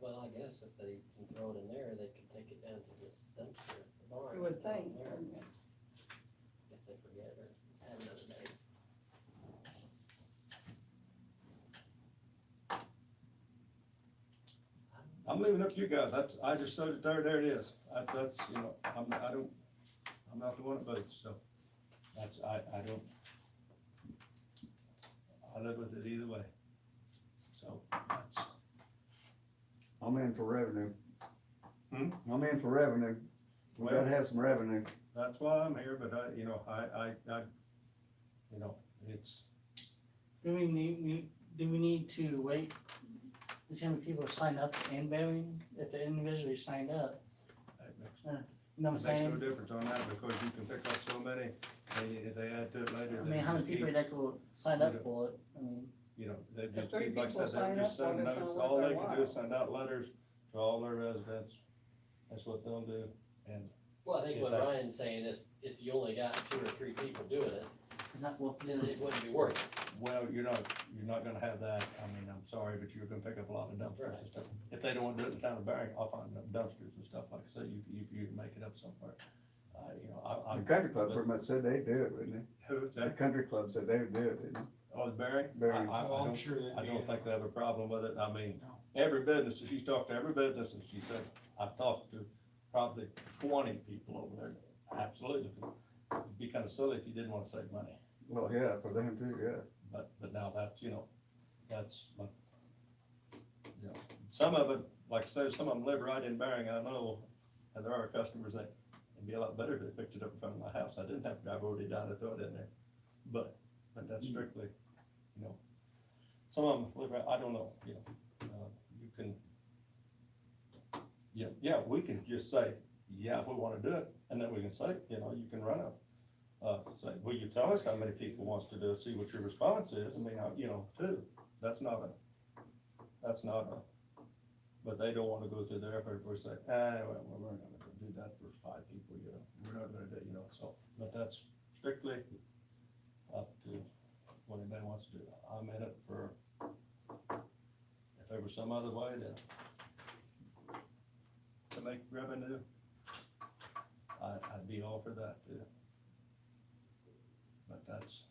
Well, I guess if they can throw it in there, they could take it down to this dumpster at the barn. You would throw it think. in there If they forget or have another day. I'm leaving it up to you guys, I, I just showed it there, there it is, I, that's, you know, I'm, I don't, I'm not the one that votes, so, that's, I, I don't. I live with it either way, so, that's, I'm in for revenue. Hmm? I'm in for revenue. We gotta Well- have some revenue. that's why I'm here, but I, you know, I, I, I, you know, it's, Do we need, we- do we need to wait, to see how many people sign up and voting, if they individually signed up, it makes, you know what I'm it makes no saying? difference on that, because you can pick up so many, they, they add to it later. I they mean, how many just keep- people that could sign up for it, I mean, you know, they If just, three keep- like I people said, sign they just up on send it, it's notes, not all worth they their can do is while. send out letters to all their residents, that's what they'll do, and, Well, I think what Yeah. Ryan's saying, if, if you only got two or three people doing it, it's not worth then doing. it wouldn't be worth it. well, you're not, you're not gonna have that, I mean, I'm sorry, but you're gonna pick up a lot of dumpsters and stuff. If they don't wanna do it in the town of Barry, I'll find them dumpsters and stuff, like I say, you, you, you can make it up somewhere, uh, you know, I, The I, country club pretty much said they'd do it, wouldn't they? who's The that, country club said they would do it, didn't they? oh, the Barry? I- Barry. I, I Well, I'm don't, sure that. I don't think they have a problem with it, I mean, No. every business, she's talked to every business, and she said, I've talked to probably twenty people over there, absolutely. It'd be kinda silly if you didn't wanna save money, Well, yeah, for them too, yeah. but, but now that's, you know, that's, my- you know, some of it, like I said, some of them live right in Bering, I know, and there are customers that, it'd be a lot better if they picked it up in front of my house, I didn't have to drive already down to throw it in there, but, but that's strictly, you know, some of them live right, I don't know, you know, uh, you can, yeah, yeah, we can just say, yeah, if we wanna do it, and then we can say, you know, you can run a, uh, say, will you tell us how many people wants to do, it, see what your response is, I mean, I- you know, too, that's not a, that's not a, but they don't wanna go through their effort, we say, ah, well, we're not gonna do that for five people, you know, we're not gonna do, you know, so, but that's strictly up to what anybody wants to do, I'm in it for, if there was some other way to, to make revenue, I, I'd be all for that too. But that's,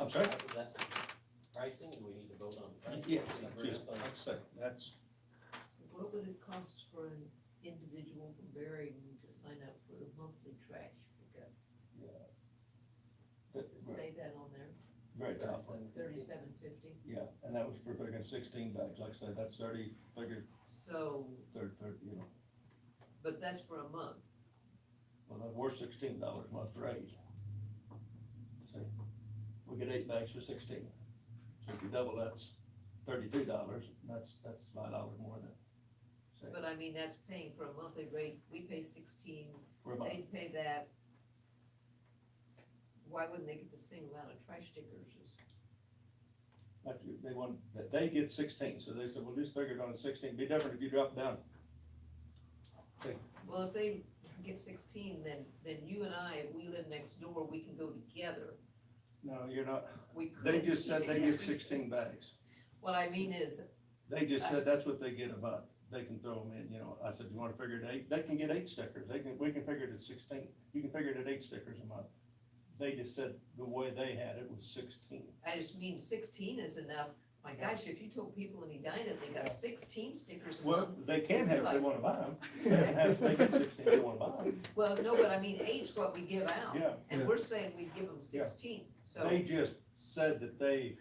I'm sorry? Is that pricing, do we need to vote on the price? Yeah, Can we bring just, up like on- I say, that's, What would it cost for an individual from Bering to sign up for the monthly trash pickup? Does it that's say that on there? very tough. Thirty-seven fifty? Yeah, and that was for picking sixteen bags, like I said, that's thirty, figure, So, third, third, you know, but that's for a month. well, that were sixteen dollars month rate. See, we get eight bags for sixteen, so if you double, that's thirty-two dollars, that's, that's five dollars more than, say, But I mean, that's paying for a monthly rate. We pay sixteen, for a month. they pay that. Why wouldn't they get the same amount of trash stickers? But you- they want, that they get sixteen, so they said, well, just figure it on a sixteen, be different if you drop it down. Well, if they get sixteen, then, then you and I, if we live next door, we can go together. No, you're not, We could. they just said even they if get we- sixteen bags. What I mean is, They just said that's what they get a month. They can throw them in, you know, I said, you wanna figure it eight, they can get eight stickers, they can, we can figure it at sixteen, you can figure it at eight stickers a month. They just said the way they had it was sixteen. I just mean sixteen is enough. My gosh, if you told people in Edina they got sixteen stickers a Well, month. they can have if they wanna buy them, they can have, if they get sixteen, if they wanna buy them, Well, no, but I mean eight's what we give out. yeah. And Yeah. we're saying we give them sixteen, so, They just said that they,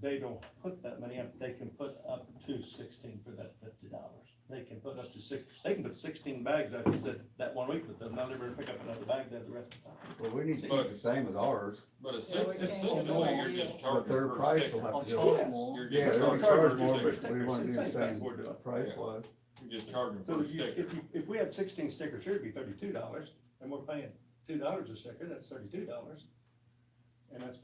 they don't put that many up, they can put up to sixteen for that fifty dollars. They can put up to six, they can put sixteen bags, like you said, that one week, but they'll never pick up another bag there the rest of the time. Well, we need to keep But- the same as ours, But it's, Yeah, we it's can't have essentially, more. you're just but charging their per price will sticker. have I'll to go charge up. more. You're Yeah, just they're gonna charging charge per more, sticker. but we wanna do the Same thing same we're doing. price Yeah. was. You're just charging So per if you, sticker. if you, if we had sixteen stickers here, it'd be thirty-two dollars, and we're paying two dollars a sticker, that's thirty-two dollars. And that's